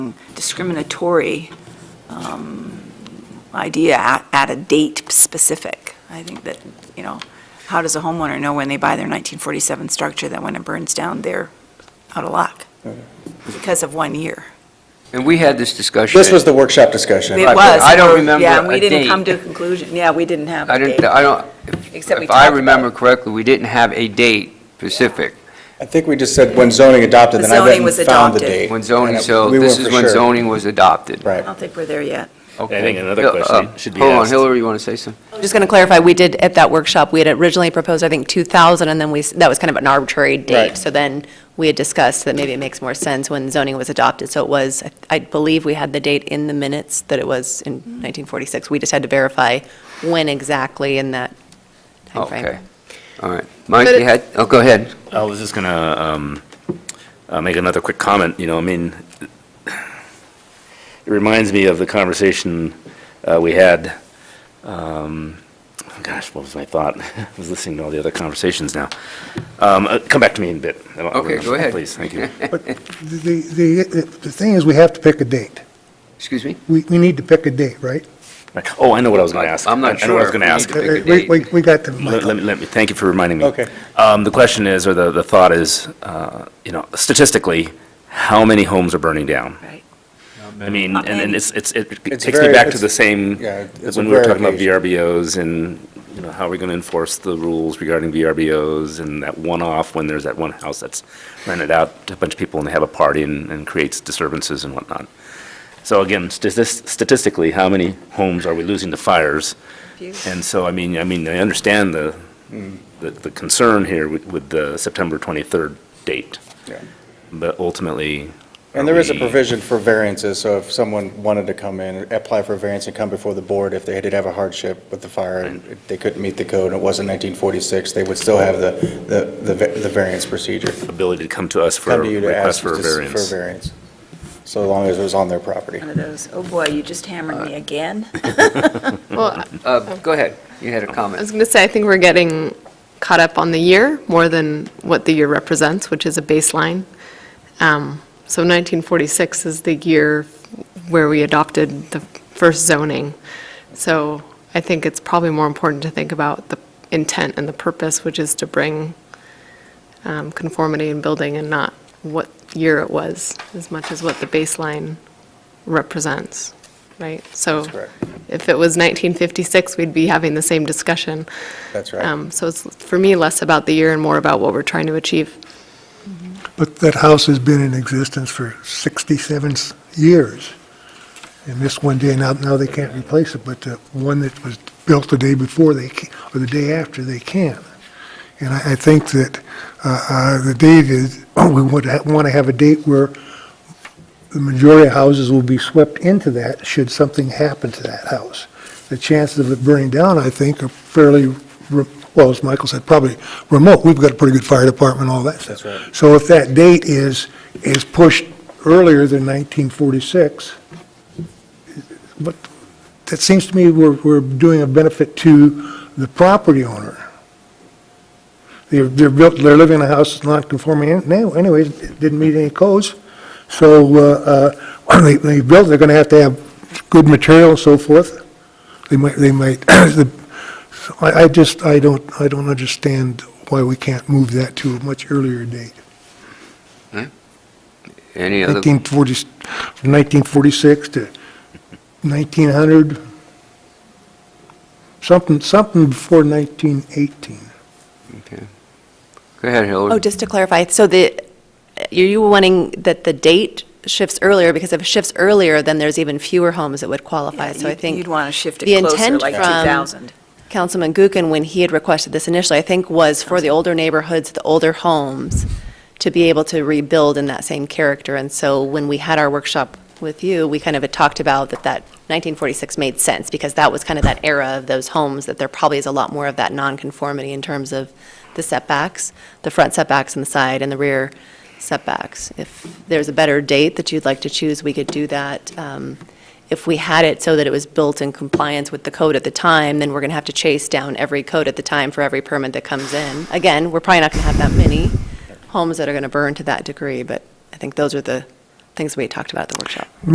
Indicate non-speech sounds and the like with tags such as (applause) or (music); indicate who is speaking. Speaker 1: discriminatory um, idea at- at a date specific. I think that, you know, how does a homeowner know when they buy their 1947 structure that when it burns down, they're out of luck? Because of one year.
Speaker 2: And we had this discussion.
Speaker 3: This was the workshop discussion.
Speaker 1: It
Speaker 2: but
Speaker 1: was.
Speaker 2: I don't remember
Speaker 1: Yeah, and
Speaker 2: a
Speaker 1: we didn't
Speaker 2: date.
Speaker 1: come to a conclusion. Yeah, we didn't have
Speaker 2: I
Speaker 1: a
Speaker 2: didn't,
Speaker 1: date,
Speaker 2: I don't,
Speaker 1: except we
Speaker 2: if
Speaker 1: talked about
Speaker 2: I
Speaker 1: it.
Speaker 2: remember correctly, we didn't have a date specific
Speaker 3: I think we just said when zoning adopted,
Speaker 1: The
Speaker 3: then I
Speaker 1: zoning
Speaker 3: went
Speaker 1: was
Speaker 3: and found the
Speaker 1: adopted.
Speaker 3: date.
Speaker 2: when zoning,
Speaker 3: And
Speaker 2: so
Speaker 3: we weren't
Speaker 2: this is
Speaker 3: for
Speaker 2: when
Speaker 3: sure.
Speaker 2: zoning was adopted.
Speaker 1: I
Speaker 3: Right.
Speaker 1: don't think we're there yet.
Speaker 2: Okay.
Speaker 4: I think
Speaker 2: Uh,
Speaker 4: another
Speaker 2: uh,
Speaker 4: question should be
Speaker 2: Hold on,
Speaker 4: asked.
Speaker 2: Hillary, you want to say something?
Speaker 5: Just going to clarify, we did, at that workshop, we had originally proposed, I think, 2,000, and then we, s- that was kind of an arbitrary date.
Speaker 3: Right.
Speaker 5: So then we had discussed that maybe it makes more sense when zoning was adopted. So it was, I- I believe we had the date in the minutes that it was in 1946. We just had to verify when exactly in that timeframe.
Speaker 2: Okay, all right. Mike,
Speaker 6: But
Speaker 2: you
Speaker 6: it-
Speaker 2: had, oh, go ahead.
Speaker 4: I was just gonna um, uh, make another quick comment, you know, I mean, it reminds me of the conversation uh, we had, um, oh gosh, what was my thought? (laughs) I was listening to all the other conversations now. Um, uh, Come back to me in a bit. I don't- I
Speaker 2: Okay,
Speaker 4: remember.
Speaker 2: go ahead. (laughs)
Speaker 4: Please, thank you.
Speaker 7: The, the, the thing is, we have to pick a date.
Speaker 2: Excuse me?
Speaker 7: We, we need to pick a date, right? Uh,
Speaker 4: Oh, I know what I was gonna ask.
Speaker 2: I'm not
Speaker 4: I know what I was
Speaker 2: sure.
Speaker 4: gonna ask.
Speaker 2: (laughs) Pick a
Speaker 7: We-
Speaker 2: date.
Speaker 7: We, we got the,
Speaker 4: Let let me, let me, thank you for reminding me.
Speaker 3: Okay.
Speaker 4: Um, The question is, or the, the thought is, uh, you know, statistically, how many homes are burning down?
Speaker 1: Right.
Speaker 4: I mean, and then it's, it's, it
Speaker 3: It's
Speaker 4: takes me
Speaker 3: very-
Speaker 4: back to
Speaker 3: it's-
Speaker 4: the same,
Speaker 3: yeah, it's a
Speaker 4: when we were
Speaker 3: rare
Speaker 4: talking about
Speaker 3: occasion.
Speaker 4: VRBOs and, you know, how are we going to enforce the rules regarding VRBOs and that one-off when there's that one house that's rented out to a bunch of people and they have a party and, and creates disturbances and whatnot. So again, statis- statistically, how many homes are we losing to fires? And so, I mean, I mean, I understand the, the- the concern here with- with the September 23rd date,
Speaker 3: Yeah.
Speaker 4: but ultimately.
Speaker 3: And there is a
Speaker 4: are we-
Speaker 3: provision for variances, so if someone wanted to come in, apply for a variance and come before the board, if they did have a hardship with the fire, and if they couldn't meet the code, and it wasn't 1946, they would still have the, the- the, va- the variance procedure.
Speaker 4: ability to come to us for a
Speaker 3: Come to you to ask
Speaker 4: request for a
Speaker 3: just for a
Speaker 4: variance.
Speaker 3: variance, so long as it was on their property.
Speaker 1: One of those, oh boy, you just hammered me again.
Speaker 6: Well,
Speaker 2: Uh, Go ahead, you had a
Speaker 6: I
Speaker 2: comment.
Speaker 6: was going to say, I think we're getting caught up on the year more than what the year represents, which is a baseline. Um, So 1946 is the year where we adopted the first zoning. So I think it's probably more important to think about the intent and the purpose, which is to bring um, conformity in building and not what year it was, as much as what the baseline represents, right? So
Speaker 3: That's correct.
Speaker 6: if it was 1956, we'd be having the same discussion.
Speaker 3: That's right.
Speaker 6: Um, So it's, for me, less about the year and more about what we're trying to achieve.
Speaker 7: but that house has been in existence for 67 years. And missed one day, now, now they can't replace it, but the one that was built the day before, they, ca- or the day after, they can. And I, I think that, uh, uh, the date is, (clears throat) we would want to have a date where the majority of houses will be swept into that should something happen to that house. The chances of it burning down, I think, are fairly, re- well, as Michael said, probably remote. We've got a pretty good fire department, and all that stuff.
Speaker 3: That's right.
Speaker 7: So if that date is, is pushed earlier than 1946, but that seems to me we're, we're doing a benefit to the property owner. They're, they're built, they're living in a house that's not conforming an- now anyways, it didn't meet any codes. So, uh, uh, (clears throat) when they, they build, they're gonna have to have good material and so forth. They might, they might, (clears throat) the- so I, I just, I don't, I don't understand why we can't move that to a much earlier date.
Speaker 2: Any other?
Speaker 7: 1940, from 1946 to 1900, something, something before 1918.
Speaker 2: okay. Go ahead,
Speaker 5: Oh,
Speaker 2: Hillary.
Speaker 5: just to clarify, so the, are you wanting that the date shifts earlier? Because if it shifts earlier, then there's even fewer homes that would qualify.
Speaker 1: Yeah,
Speaker 5: So I
Speaker 1: you'd-
Speaker 5: think.
Speaker 1: You'd want to shift
Speaker 5: the
Speaker 1: it closer,
Speaker 5: intent
Speaker 1: like
Speaker 5: from-
Speaker 1: 2000.
Speaker 5: Councilman Gookin, when he had requested this initially, I think was for the older neighborhoods, the older homes, to be able to rebuild in that same character. And so when we had our workshop with you, we kind of had talked about that that 1946 made sense, because that was kind of that era of those homes, that there probably is a lot more of that nonconformity in terms of the setbacks, the front setbacks and the side and the rear setbacks. If there's a better date that you'd like to choose, we could do that. Um, if we had it so that it was built in compliance with the code at the time, then we're going to have to chase down every code at the time for every permit that comes in. Again, we're probably not going to have that many homes that are going to burn to that degree, but I think those are the things we talked about at the workshop.